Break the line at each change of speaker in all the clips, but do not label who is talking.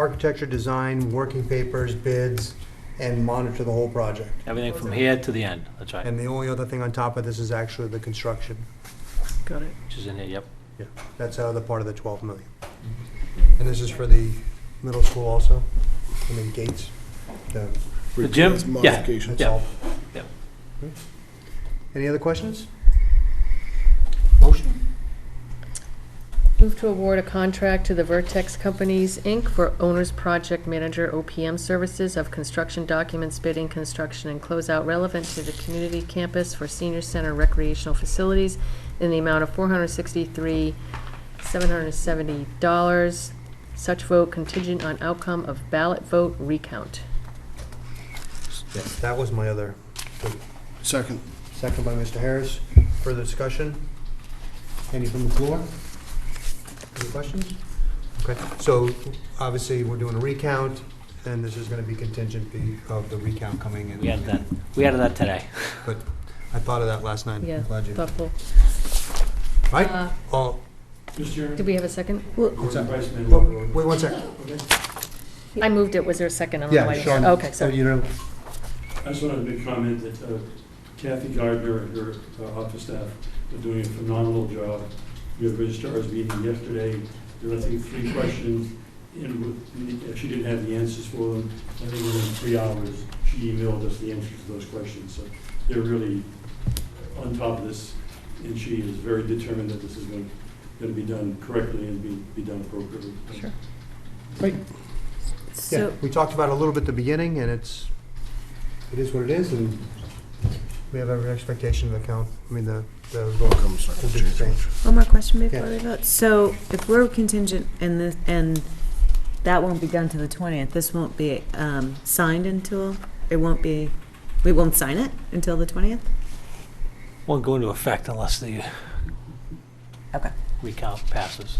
architecture, design, working papers, bids, and monitor the whole project.
Everything from here to the end, that's right,
And the only other thing on top of this is actually the construction.
Got it.
which is in here, yep.
Yeah, That's the other part of the 12 million. And this is for the middle school also, I mean gates. The-
The gym?
repairs,
Yeah.
modifications.
That's all.
Yep.
Great. Any other questions?
Move to award a contract to the Vertex Companies, Inc. for Owner's Project Manager OPM Services of Construction Documents, Bidding, Construction, and Closeout relevant to the community campus for senior center recreational facilities in the amount of $463,770. Such vote contingent on outcome of ballot vote recount.
Yes, that was my other,
Second.
second by Mr. Harris. Further discussion? Any from the floor? Any questions? Okay, so obviously, we're doing a recount, and this is going to be contingent be- of the recount coming in.
We added that, we added that today.
But I thought of that last night. I'm
Yeah,
Glad you.
thoughtful.
Right?
Uh,
Oh,
Mr.
Did
Chairman,
we have a second?
what's that?
Vice Mayor.
Whoa, Wait one second.
I moved it. Was there a second? I don't know
Yeah,
why-
Sean.
Okay,
So
sorry.
you know,
I just wanted to make a comment that uh, Kathy Gardner and her uh, office staff are doing a phenomenal job. We had a registrar's meeting yesterday, there were, I think, three questions, and with- she didn't have the answers for them. I think within three hours, she emailed us the answers to those questions, so they're really on top of this, and she is very determined that this is going to be done correctly and be be done appropriately.
Sure.
yeah,
So,
we talked about it a little bit at the beginning, and it's, it is what it is, and we have every expectation of the count, I mean, the, the vote
Comes
will be the same.
One more question before
Yeah.
we vote. So if we're contingent and this, and that won't be done till the twentieth, this won't be, um, signed until, it won't be, we won't sign it until the twentieth?
Won't go into effect unless the
Okay.
recount passes.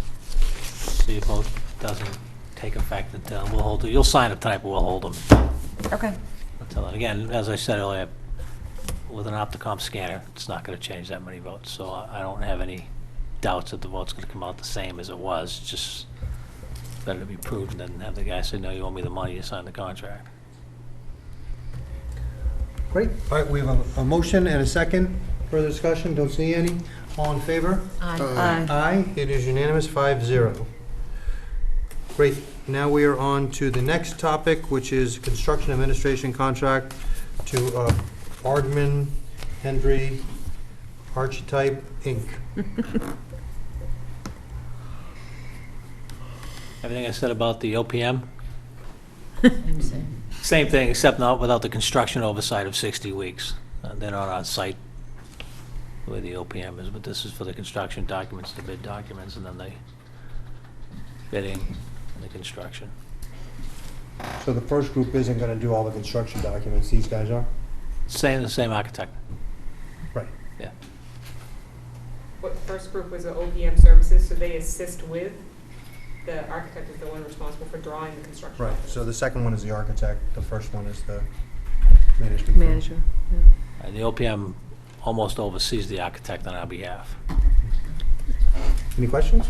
So your vote doesn't take effect until, we'll hold, it. you'll sign it tonight, but we'll hold them
Okay.
until then. Again, as I said earlier, with an Opticom scanner, it's not gonna change that many votes, so I I don't have any doubts that the vote's gonna come out the same as it was, just better to be prudent than have the guy say, no, you owe me the money to sign the contract.
Great, all right, we have a, a motion and a second, further discussion, don't see any, all in favor?
aye.
Uh,
Aye.
Aye, it is unanimous, five zero. Great, now we are on to the next topic, which is construction administration contract to uh, Ardman Hendry Archetype, Inc.
Everything I said about the OPM,
I'm saying.
Same thing, except not without the construction oversight of 60 weeks. Uh, They're not on site the way the OPM is, but this is for the construction documents, the bid documents, and then the bidding and the construction.
So the first group isn't gonna do all the construction documents, these guys are?
Same, the same architect.
Right.
Yeah.
What first group was the OPM services, so they assist with, the architect is the one responsible for drawing the construction.
Right,
documents.
so the second one is the architect, the first one is the management. firm.
Manager, yeah.
And Uh, the OPM almost oversees the architect on our behalf.
Any questions?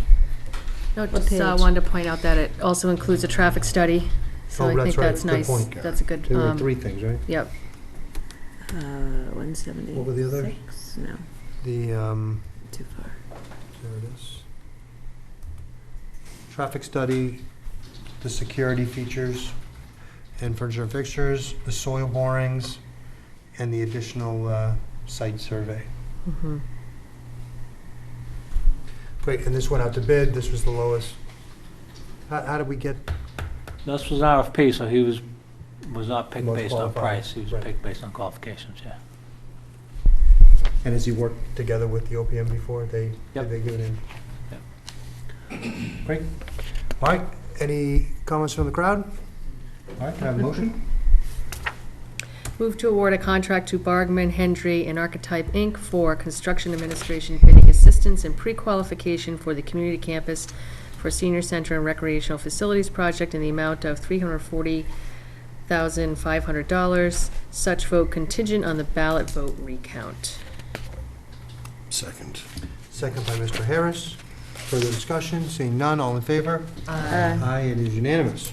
No,
What
just uh,
page?
wanted to point out that it also includes a traffic study, so
Oh,
I think
that's right.
that's
Good
nice.
point.
That's a good,
There were
um,
three things, right?
yep.
Uh, one seventy-six?
What were the others?
No,
The, um,
too far.
there it is. Traffic study, the security features, and furniture and fixtures, the soil borings, and the additional, uh, site survey.
Mhm.
Great, and this went out to bid, this was the lowest. How, how did we get,
This was an RFP, so he was, was not picked
Most
based on
qualified,
price. He was
right.
picked based on qualifications, yeah.
and has he worked together with the OPM before? They, did
Yep.
they give it in?
Yep.
Great. All right, any comments from the crowd? All right, can I have a motion?
Move to award a contract to Bargman, Hendry, and Archetype, Inc. for construction administration bidding assistance and pre-qualification for the community campus for senior center and recreational facilities project in the amount of $340,500. Such vote contingent on the ballot vote recount.
Second.
Second by Mr. Harris. Further discussion, seeing none, all in favor?
Aye.
Aye, it is unanimous.